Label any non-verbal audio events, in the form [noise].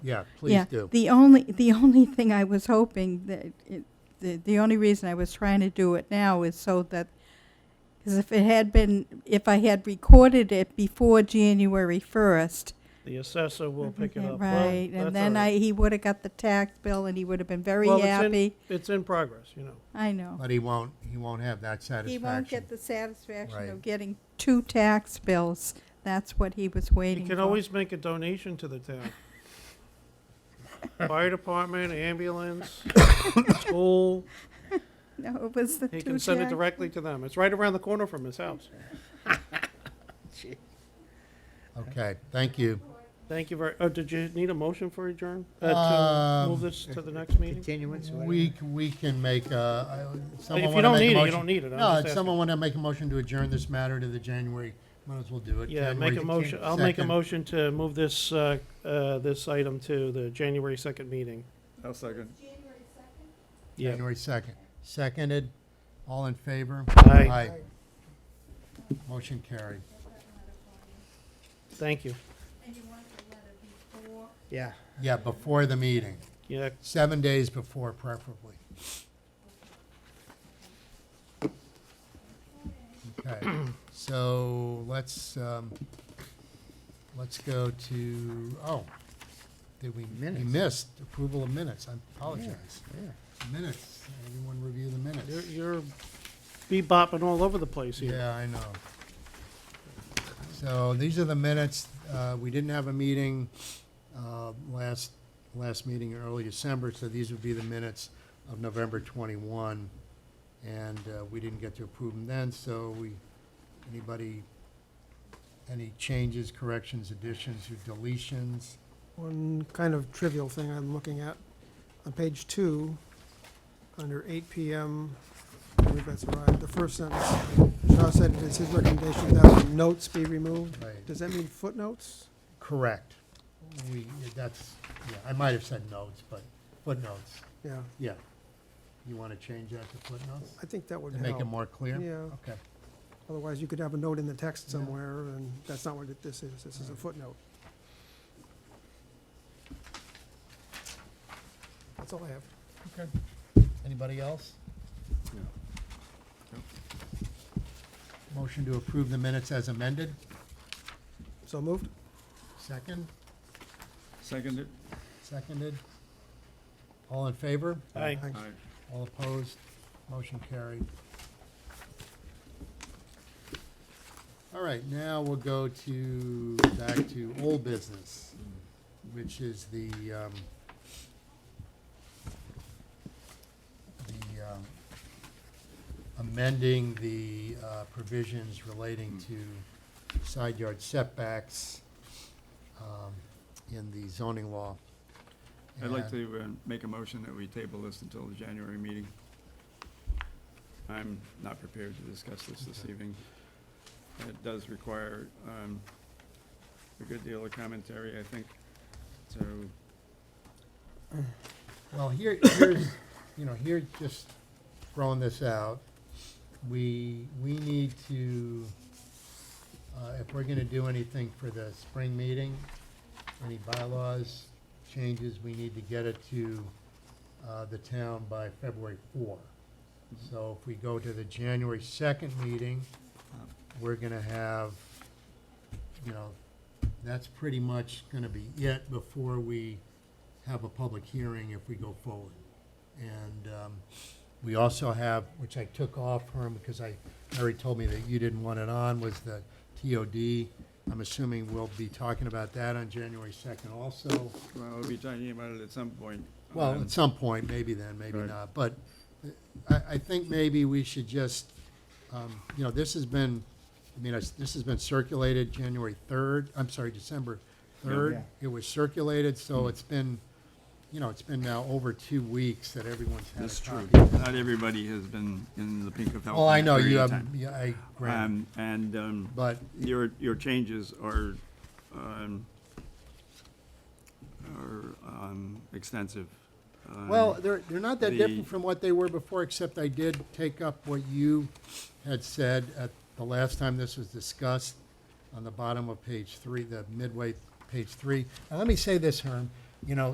Yeah, Yeah, please do. The only, the only thing I was hoping that, it- the, the only reason I was trying to do it now is so that, because if it had been, if I had recorded it before January first. Mhm. The assessor will pick it up. Well, Mm-hmm. Right, that's and then all I, right. he would have got the tax bill and he would have been very Well, it's in- happy. It's in progress, you know. I know. But he won't, he won't have that He satisfaction. won't get the satisfaction Right. of getting two tax bills. That's what he was waiting You for. can always make a donation to [laughs] the town. Fire [coughs] department, ambulance, school, [laughs] No, it was the two he tax. can send it directly to them. It's right around the corner from his house. Okay, thank you. Thank you very, oh, did you need a motion for adjourn? Uh, Um, to move this to the next meeting? Continuance or whatever. We, c- we can make, uh, I- someone If you want to make a don't need it, you motion? don't need it. No, I'm just if asking. someone want to make a motion to adjourn this matter to the January, might as well do it. Yeah, make a January motion, I'll make a second. motion to move this, uh, uh, this item to the January second meeting. I'll second. Yeah. January second. Seconded, all in favor? Aye. Motion carried. Thank you. Yeah. Yeah, before the meeting, Yeah, seven days before preferably. Okay, so let's, um, let's go to, oh, did we, we Minutes. missed approval of minutes, I apologize. Yeah. Minutes, anyone review the you're, minutes? you're bebopping all over the place here. Yeah, I know. So these are the minutes, uh, we didn't have a meeting, uh, last, last meeting in early December, so these would be the minutes of November twenty-one. And, uh, we didn't get to approve them then, so we, anybody, any changes, corrections, additions, or deletions? One kind of trivial thing I'm looking at, on page two, under eight PM, I believe that's right, the first sentence, Shaw said it is his recommendation that notes be removed. Right. Does that mean footnotes? Correct. We, that's, yeah, I might have said notes, but footnotes, Yeah, yeah. You wanna change that to footnotes? I think that would To help. make it more clear? Yeah, Okay. otherwise you could have a note in the text Yeah. somewhere, and that's not what it- this is, this is a footnote. That's all I have. Anybody else? Motion to approve the minutes as amended, So moved? second, Seconded? seconded. All in favor? Aye. Aye. Aye. All opposed? Motion carried. All right, now we'll go to, back to old business, which is the, um, the, um, amending the uh, provisions relating to side yard setbacks, um, in the zoning law. I'd And- like to uh, make a motion that we table this until the January meeting. I'm not prepared to discuss this this evening. It does require um, a good deal of commentary, I think, so, Well, here, [coughs] here's, you know, here, just throwing this out, we, we need to, uh, if we're gonna do anything for the spring meeting, any bylaws, changes, we need to get it to, uh, the town by February four. So if we go to the January second meeting, we're gonna have, you know, that's pretty much gonna be it before we have a public hearing if we go forward. And um, we also have, which I took off, Herm, because I, Mary told me that you didn't want it on, was the TOD. I'm assuming we'll be talking about that on January 2nd also. well, we'll be talking about it at some point. Well, Um, at some point, maybe then, maybe Right. not, but uh, I, I think maybe we should just, um, you know, this has been, I mean, it's- this has been circulated January third, I'm sorry, December third. It was circulated, Hmm. so it's been, you know, it's been now over two weeks that everyone's had That's a true. copy. Not everybody has been in the pink of health. Well, in I that know, you period of have, time. yeah, I, grant, Um, And, um, but, Your, your changes are, um, are, um, extensive. Um, well, they're, they're not that the- different from what they were before, except I did take up what you had said at the last time this was discussed on the bottom of page three, the midway, page three. And let me say this, Herm, you know,